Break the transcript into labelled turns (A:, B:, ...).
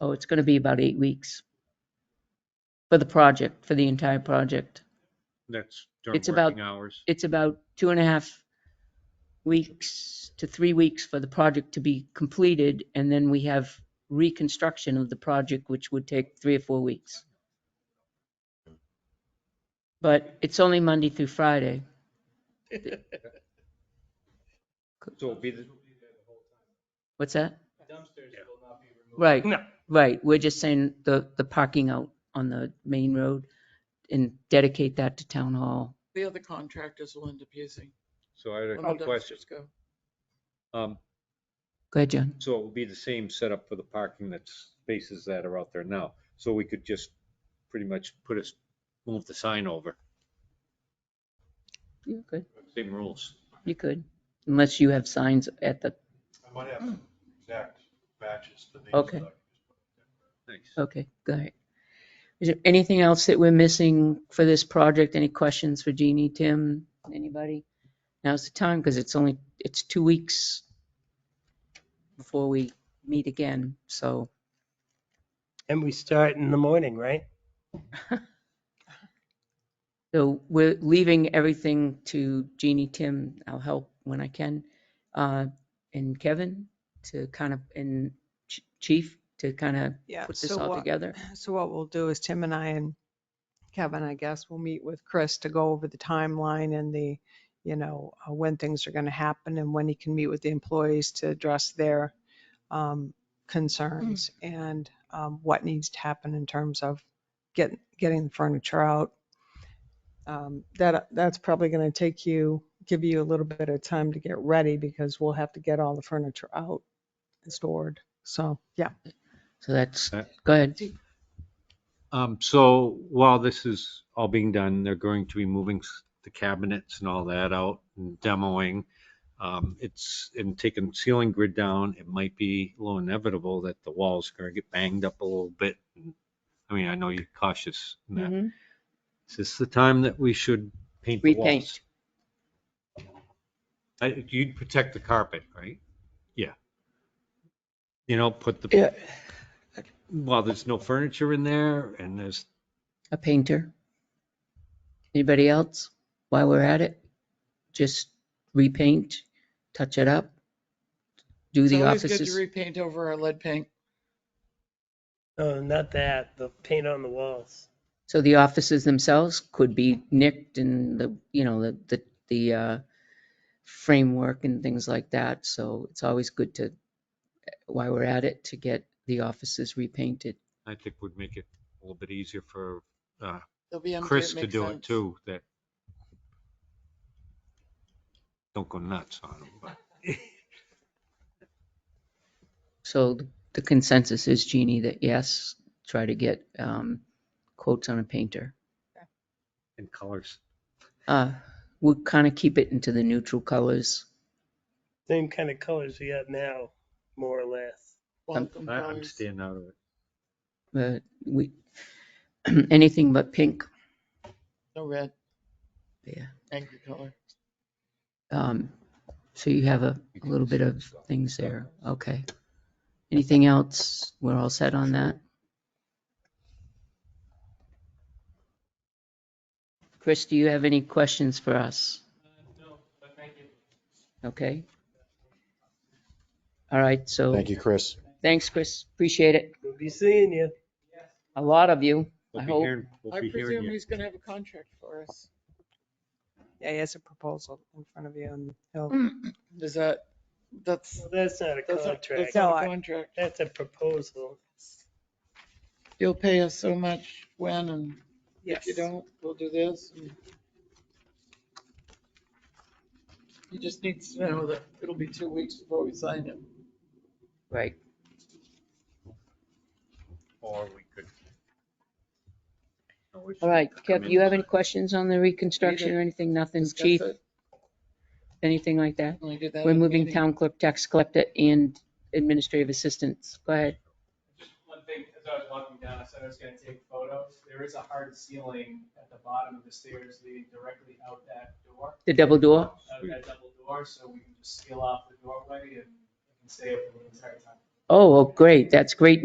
A: Oh, it's gonna be about eight weeks for the project, for the entire project.
B: That's during
A: It's about-
B: working hours.
A: It's about two and a half weeks to three weeks for the project to be completed, and then we have reconstruction of the project, which would take three or four weeks. But it's only Monday through Friday.
B: So it'll be, the-
A: What's that?
C: Dumpsters will not be removed.
A: Right.
D: No.
A: Right, we're just saying the, the parking out on the main road and dedicate that to town hall.
E: The other contractors will end up using.
B: so I had
E: when
B: a
E: the
B: question.
E: dumpsters go.
B: Um,
A: Go ahead, John.
B: so it will be the same setup for the parking that's spaces that are out there now. So we could just pretty much put us, move the sign over,
A: You could.
B: same rules.
A: You could, unless you have signs at the,
C: I might have some exact matches to these.
A: Okay.
C: that I can just put in.
B: Thanks.
A: okay, go ahead. Is there anything else that we're missing for this project? Any questions for Jeannie, Tim, anybody? Now's the time, because it's only, it's two weeks before we meet again, so.
D: And we start in the morning, right?
A: So we're leaving everything to Jeannie, Tim, I'll help when I can, uh, and Kevin to kind of, and Ch- Chief to kind of
F: Yeah,
A: put this
F: so
A: all
F: what,
A: together.
F: so what we'll do is Tim and I and Kevin, I guess, will meet with Chris to go over the timeline and the, you know, uh, when things are going to happen and when he can meet with the employees to address their
A: Hmm.
F: um, concerns and um, what needs to happen in terms of getting, getting the furniture out. Um, That, that's probably going to take you, give you a little bit of time to get ready because we'll have to get all the furniture out and stored. So, yeah.
A: So that's,
B: That-
A: go ahead.
B: Um, so while this is all being done, they're going to be moving s- the cabinets and all that out and demoing. Um, it's, and taking ceiling grid down, it might be a little inevitable that the walls are gonna get banged up a little bit. I mean, I know you're cautious in that.
A: Mhm.
B: Is this the time that we should paint the walls?
A: Repaint.
B: I- You'd protect the carpet, right? Yeah. You know, put
D: Yeah.
B: the, while there's no furniture in there and there's
A: a painter. Anybody else while we're at it? Just repaint, touch it up, do
E: It's
A: the
E: always good to
A: offices.
E: repaint over our lead paint.
D: No, not that. The paint on the walls.
A: So the offices themselves could be nicked and the, you know, the, the, the uh, framework and things like that. So it's always good to, while we're at it, to get the offices repainted.
B: I think would make it a little bit easier for
E: They'll be empty.
B: Chris to
E: makes
B: do it
E: sense.
B: too, that don't go nuts on him, but
A: So the consensus is Jeannie that yes, try to get um, quotes on a painter.
B: in colors.
A: Uh, we'll kind of keep it into the neutral colors.
D: Same kind of colors we got now, more or less.
E: Welcome
B: I- I'm
E: colors.
B: staying out of it.
A: Uh, we, anything but pink.
E: No red,
A: Yeah.
E: angry color.
A: Um, so you have a, a little bit of things there. Okay. Anything else? We're all set on that? Chris, do you have any questions for us?
C: Uh, No, but thank you.
A: Okay. All right. So
G: Thank you, Chris.
A: thanks, Chris. Appreciate it.
D: We'll be seeing you.
A: A lot of you.
B: We'll
A: I
B: be
A: hope-
B: hearing, we'll
E: I
B: be hearing
E: presume
B: you.
E: he's gonna have a contract for us.
F: Yeah, he has a proposal in front of you and he'll,
E: Is that, that's,
D: Well, that's not a
E: that's, a- that's
D: contract.
F: No,
E: not
F: I-
E: a contract.
D: That's a proposal.
E: You'll pay us so much when and if
F: yes.
E: you don't, we'll do this. and- He just needs to know that it'll be two weeks before we sign him.
A: Right.
B: Or we could.
A: All right.
B: Come
A: Kev,
B: in.
A: you have any questions on the reconstruction or anything? Nothing,
E: Discuss
A: chief?
E: it, Uh,
A: anything like that.
E: and we do that at
A: We're
E: the
A: moving
E: meeting.
A: town clerk, tax collector, and administrative assistants. Go ahead.
C: Just one thing, as I was walking down, I said I was gonna take photos. There is a hard ceiling at the bottom of the stairs leading directly out that door,
A: The double door.
C: out of that double door, so we can just seal off the doorway and it can stay open the entire time.
A: Oh, well, great. That's great